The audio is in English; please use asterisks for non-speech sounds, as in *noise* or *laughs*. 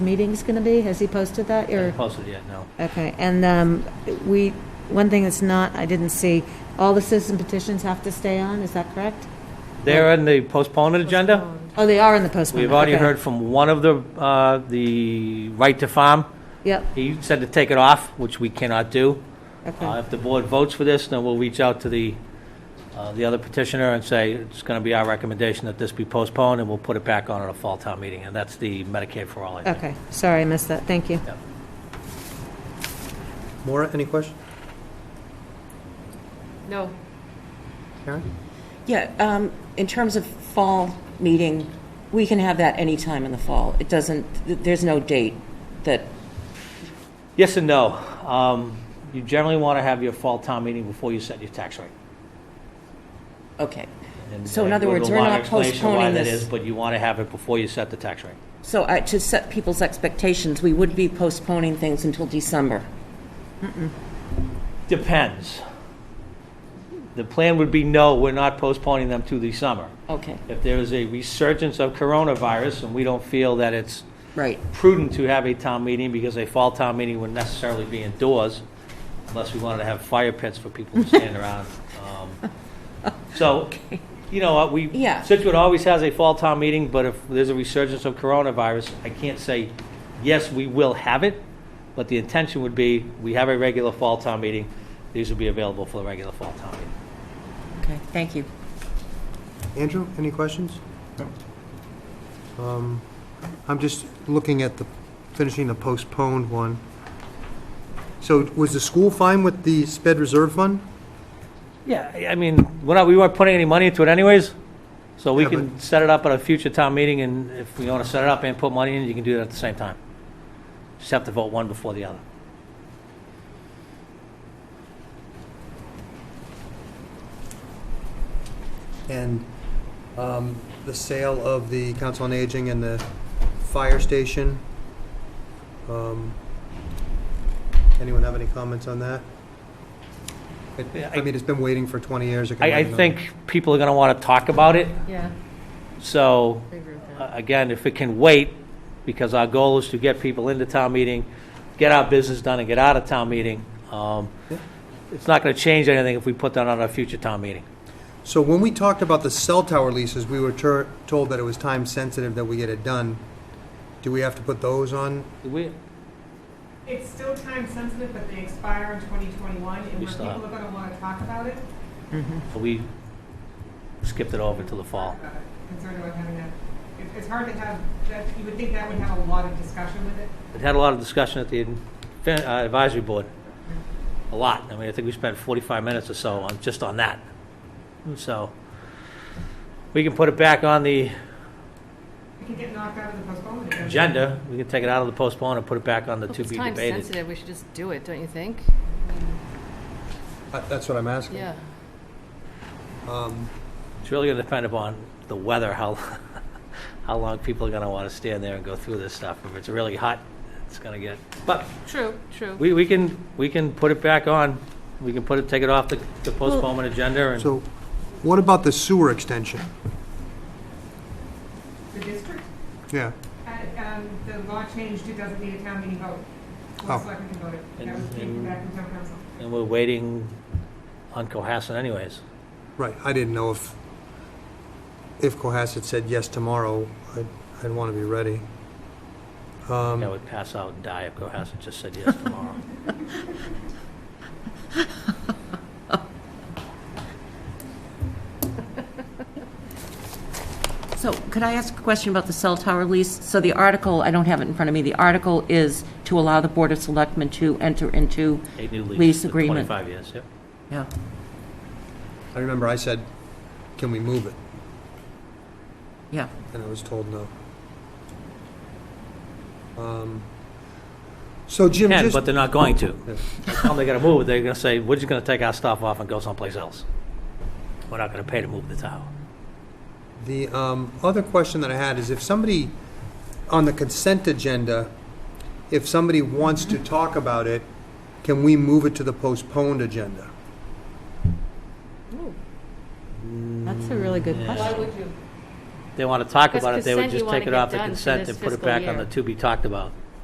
meeting's going to be? Has he posted that? Or, Posted yet, no. okay, and um, we, one thing that's not, I didn't see, all the citizen petitions have to stay on, is that correct? They're on the postponed agenda. Oh, they are in the postman. We've already okay. heard from one of the, uh, the right to farm. Yep, He said to take it off, which we cannot do. Uh, okay, If the board votes for this, then we'll reach out to the, uh, the other petitioner and say, it's going to be our recommendation that this be postponed, and we'll put it back on at a fall town meeting, and that's the Medicaid for all, I think. okay, sorry, I missed that, thank you. Yep. Maura, any questions? No. Karen? Yeah, um, in terms of fall meeting, we can have that any time in the fall. It doesn't, th- there's no date that, Yes and no. Um, You generally want to have your fall town meeting before you set your tax rate. okay. And- So in and other we'll words, do a we're long not explanation why postponing that this. is, But you want to have it before you set the tax rate. So I, to set people's expectations, we would be postponing things until December. Depends. The plan would be, no, we're not postponing them to the summer. Okay, If there is a resurgence of coronavirus and we don't feel that it's right, prudent to have a town meeting because a fall town meeting would necessarily be indoors unless we wanted to have fire pits for people to stand around. Um, So, you know, what, we, Yeah. Situate always has a fall town meeting, but if there's a resurgence of coronavirus, I can't say, yes, we will have it, but the intention would be, we have a regular fall town meeting, these will be available for the regular fall town meeting. okay, thank you. Andrew, any questions? Um, I'm just looking at the, finishing the postponed one. So was the school fine with the sped reserve fund? Yeah, I- I mean, we're not, we weren't putting any money into it anyways, so we Yeah, can but- set it up at a future town meeting, and if we want to set it up and put money in, you can do that at the same time. Just have to vote one before the other. And um, the sale of the Council on Aging and the fire station? Um, Anyone have any comments on that? It- Yeah, I- I mean, it's been waiting for 20 years. it can I, I wait another- think people are going to want to talk about it, Yeah, so, I agree with that. uh, again, if it can wait, because our goal is to get people into town meeting, get our business done and get out of town meeting, um, Yeah. it's not going to change anything if we put that on our future town meeting. So when we talked about the cell tower leases, we were tur- told that it was time sensitive that we get it done. Do we have to put those on? We, It's still time sensitive, but they expire in 2021, and We where still people have- are going to want to talk about it, we skipped it over to the fall. about it, concerned about having that. It- It's hard to have, that, you would think that would have a lot of discussion with it. It had a lot of discussion at the uh, advisory board, a lot. I mean, I think we spent 45 minutes or so on, just on that. So, we can put it back on the It could get knocked out of the postponement. again. agenda, we can take it out of the postpone and put it back on the If to it's be time debated. sensitive, we should just do it, don't you think? Uh, That's what I'm asking. Yeah. Um, It's really going to depend upon the weather, how, *laughs* how long people are going to want to stand there and go through this stuff. If it's really hot, it's going to get, but True, true. we, we can, we can put it back on. We can put it, take it off the the postponement agenda and. So what about the sewer extension? The district, Yeah, uh, um, the law changed, it doesn't need a town meeting vote. Oh. Board of Selectmen can vote it. That was And- taken and- back from town council. And we're waiting on Cohasset anyways. right. I didn't know if, if Cohasset said yes tomorrow, I'd, I'd want to be ready. Um, I would pass out and die if Cohasset just said yes tomorrow. So could I ask a question about the cell tower lease? So the article, I don't have it in front of me, the article is to allow the Board of Selectmen to enter into, A new lease. Lease for agreement. 25 years, yep. yeah, I remember I said, can we move it? yeah. and I was told no. Um, So Jim, Can, just, but they're not going to. Yeah. By the time they gotta move it, they're gonna say, we're just gonna take our stuff off and go someplace else. We're not gonna pay to move the tower. the um, other question that I had is if somebody, on the consent agenda, if somebody wants to talk about it, can we move it to the postponed agenda? That's a really good Yeah. question. you? they want to talk Because about it, they would consent, you just wanna take it get off the done for consent this and put it fiscal back on year. the to be talked about.